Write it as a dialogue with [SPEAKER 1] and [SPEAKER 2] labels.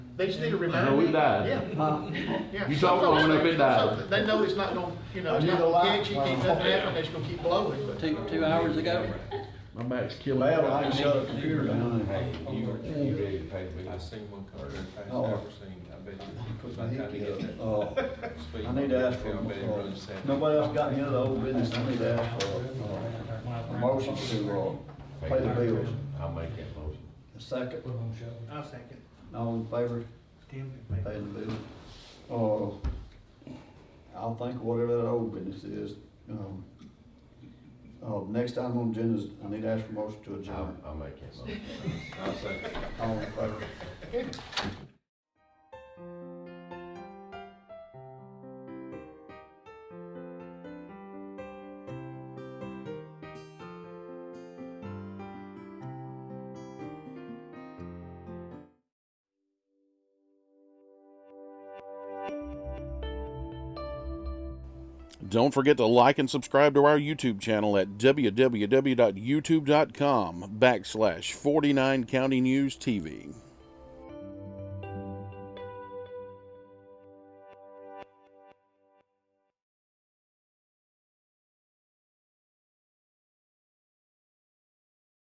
[SPEAKER 1] They just need to remind
[SPEAKER 2] know it
[SPEAKER 1] me.
[SPEAKER 2] died.
[SPEAKER 1] Yeah, yeah.
[SPEAKER 2] You talk long enough, it died.
[SPEAKER 1] So They know it's not gonna, you know, it's
[SPEAKER 3] I need
[SPEAKER 1] not
[SPEAKER 3] a
[SPEAKER 1] gonna
[SPEAKER 3] light.
[SPEAKER 1] catch you, keep nothing happening, it's gonna keep blowing, but.
[SPEAKER 4] two, two hours ago.
[SPEAKER 2] My back's killing me.
[SPEAKER 3] Well, I can shut the computer down.
[SPEAKER 5] Hey, you, you ready to pay the bill? I've seen one car, I've
[SPEAKER 3] Oh.
[SPEAKER 5] never seen, I bet you. by the time you get that
[SPEAKER 3] Uh,
[SPEAKER 5] speed
[SPEAKER 3] I need to ask for,
[SPEAKER 5] bump, I bet it runs
[SPEAKER 3] uh,
[SPEAKER 5] seventy.
[SPEAKER 3] nobody else got any other old business, I need to ask for, uh, a motion to, uh, pay the bills.
[SPEAKER 5] I'll make that motion.
[SPEAKER 3] A Second,
[SPEAKER 1] I'll second.
[SPEAKER 3] all in favor,
[SPEAKER 1] Tim.
[SPEAKER 3] pay the bills. Uh, I'll think whatever that old business is, um, uh, next item on the agenda is, I need to ask for motion to
[SPEAKER 5] I'll,
[SPEAKER 3] adjourn,
[SPEAKER 5] I'll make that motion. I'll second.
[SPEAKER 3] all in favor.
[SPEAKER 6] Don't forget to like and subscribe to our YouTube channel at www.youtube.com backslash 49 County News TV.